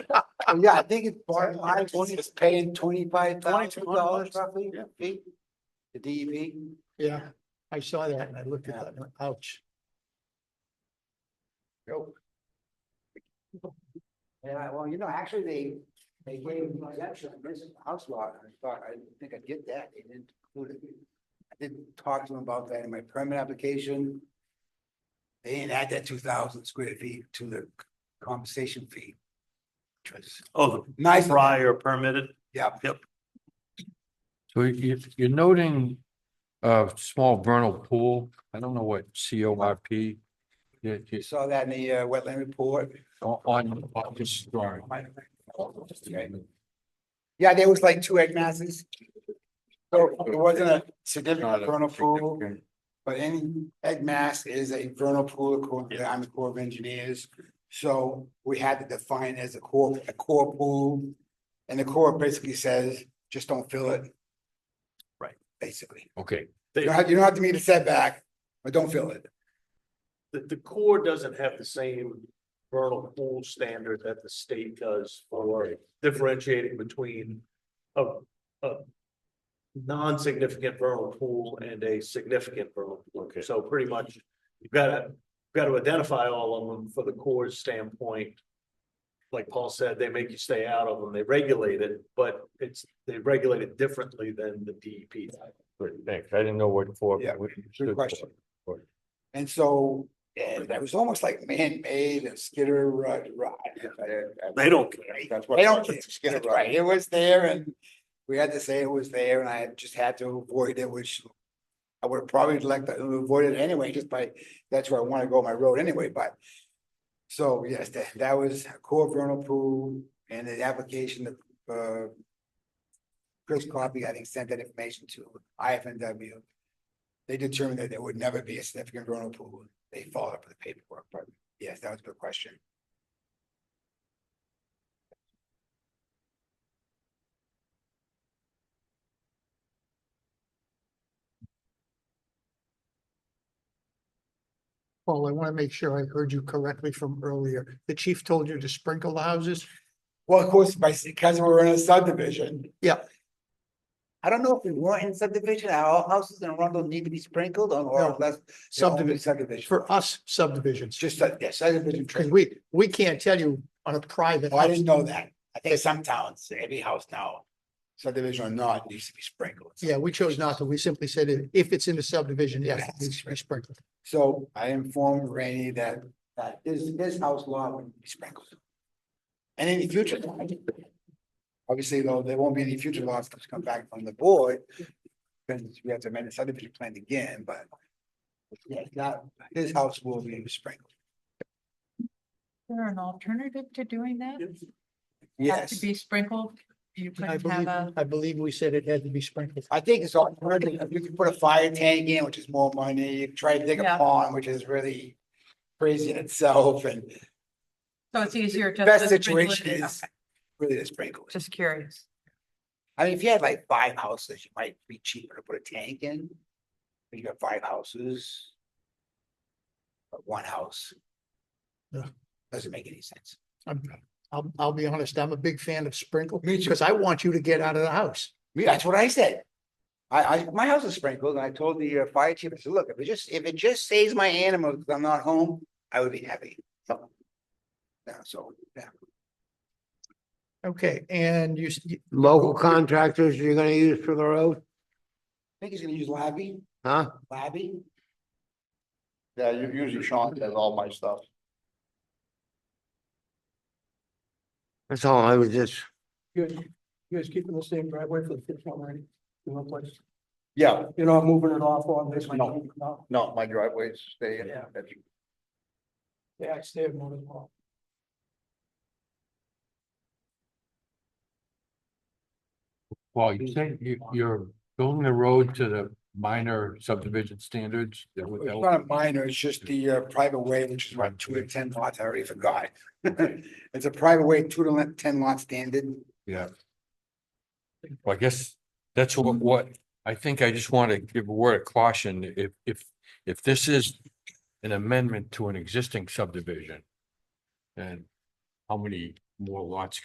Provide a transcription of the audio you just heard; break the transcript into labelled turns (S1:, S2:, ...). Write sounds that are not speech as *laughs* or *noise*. S1: Yeah, I think it's Barton High, twenty, is paying twenty-five thousand dollars
S2: $2,200.
S1: roughly,
S2: Yeah.
S1: fee, the E DEP.
S3: Yeah, I saw that and I looked at that, and went, ouch.
S1: Yeah, well, you know, actually, they, they gave me an exemption on this house lot, and I thought, I didn't think I'd get that, they didn't include it. I didn't talk to them about that in my permit application. They didn't add that two thousand square feet to the compensation fee. Which was
S2: Oh, the
S1: nice, of them.
S2: prior permitted,
S1: yeah,
S4: So you, you're noting a small vernal pool. I don't know what C O R P. Yeah,
S1: you
S4: it's
S1: saw that in the uh, wetland report.
S4: on, on on this drawing.
S1: Okay. Yeah, there was like two egg masses. So it wasn't a significant vernal pool. But any egg mass is a vernal pool according to the Army Corps of Engineers. So we had to define it as a core, a core pool. And the core basically says, just don't fill it.
S2: Right.
S1: Basically,
S4: Okay,
S1: you don't have, you don't have to meet a setback, but don't fill it.
S5: The, the Corps doesn't have the same vernal pool standard that the state does for differentiating between a, a non-significant vernal pool and a significant vernal pool.
S2: Okay.
S5: So pretty much, you've gotta, you've gotta identify all of them for the Corps' standpoint. Like Paul said, they make you stay out of them, they regulate it, but it's, they regulate it differently than the E DEP.
S4: great, thanks. I didn't know what for.
S1: Yeah,
S4: what it stood
S1: Good
S4: for.
S1: question. And so, and that was almost like man-made and Skidder Rut, right?
S2: they don't care.
S1: That's what. They don't, Skidder Rut, it was there and we had to say it was there and I just had to avoid it, which I would probably like to avoid it anyway, just by, that's where I want to go my road anyway, but so yes, that, that was a core vernal pool and the application of, uh, Chris Coffey, I think, sent that information to IFNW they determined that there would never be a significant vernal pool. They followed up with the paperwork, but yes, that was a good question.
S3: Paul, I want to make sure I heard you correctly from earlier. The chief told you to sprinkle the houses?
S1: Well, of course, by, because we're in a subdivision.
S3: Yeah.
S1: I don't know if we weren't in subdivision, are all houses in Arundel need to be sprinkled on
S3: No.
S1: or less?
S3: Subdivision,
S1: Subdivision.
S3: for us subdivisions.
S1: Just, that- yeah, subdivision.
S3: Because
S1: tree.
S3: we, we can't tell you on a private.
S1: Oh, I
S3: house.
S1: didn't know that. I think some towns, every house now, subdivision or not, needs to be sprinkled.
S3: Yeah, we chose not to. We simply said if- if it's in a subdivision, yes, it needs to be sprinkled.
S1: So I informed Rainey that, that his, his house lawn would be sprinkled. And any future. lawn, Obviously, though, there won't be any future laws to come back from the board. Because we have to amend the subdivision plan again, but. Yeah, that, his house will be sprinkled.
S6: there an alternative to doing that? Have To
S1: Yes,
S6: be sprinkled? You
S3: I
S6: couldn't have
S3: believe,
S6: a,
S3: I believe we said it had to be sprinkled.
S1: I think it's all, you can put a fire tank in, which is more money, you can try to dig a
S6: Yeah.
S1: pond, which is really. Crazy in itself and
S6: so it's easier just.
S1: best
S6: to sprinkle it?
S1: situation is
S6: Okay,
S1: really the sprinklers.
S6: Just curious.
S1: I mean, if you had like five houses, you might be cheaper to put a tank in. But you got five houses. But one house.
S3: Yeah.
S1: Doesn't make any sense.
S3: I'm, I'll, I'll be honest, I'm a big fan of sprinkle
S1: Me too.
S3: because I want you to get out of the house.
S1: Me, that's what I said. I, I, my house is sprinkled and I told the uh, fire chief, I said, look, if it just, if it just saves my animals, because I'm not home, I would be happy. Yeah, so, yeah.
S3: Okay, and you, s- you-
S7: local contractors you're gonna use for the road,
S1: I think he's gonna use Labby,
S7: huh?
S1: Labby.
S8: Yeah, u- usually Sean does all my stuff.
S7: That's all I was just,
S9: You guys, you guys keeping the same driveway for the fifth one, right? You know, place,
S8: Yeah,
S9: you're not moving it off on this one?
S8: No.
S9: No,
S8: no, my driveways stay in.
S9: Yeah. yeah, it's there more as well.
S4: Paul, you said you, you're building the road to the minor subdivision standards. That would- that
S1: It's
S4: would-
S1: not a minor, it's just the uh, private way, which is what, two to ten lots, I already forgot. *laughs* It's a private way, two to le- ten lot standard.
S4: Yeah. Well, I guess that's what, what, I think I just want to give a word of caution, if, if, if this is an amendment to an existing subdivision. And how many more lots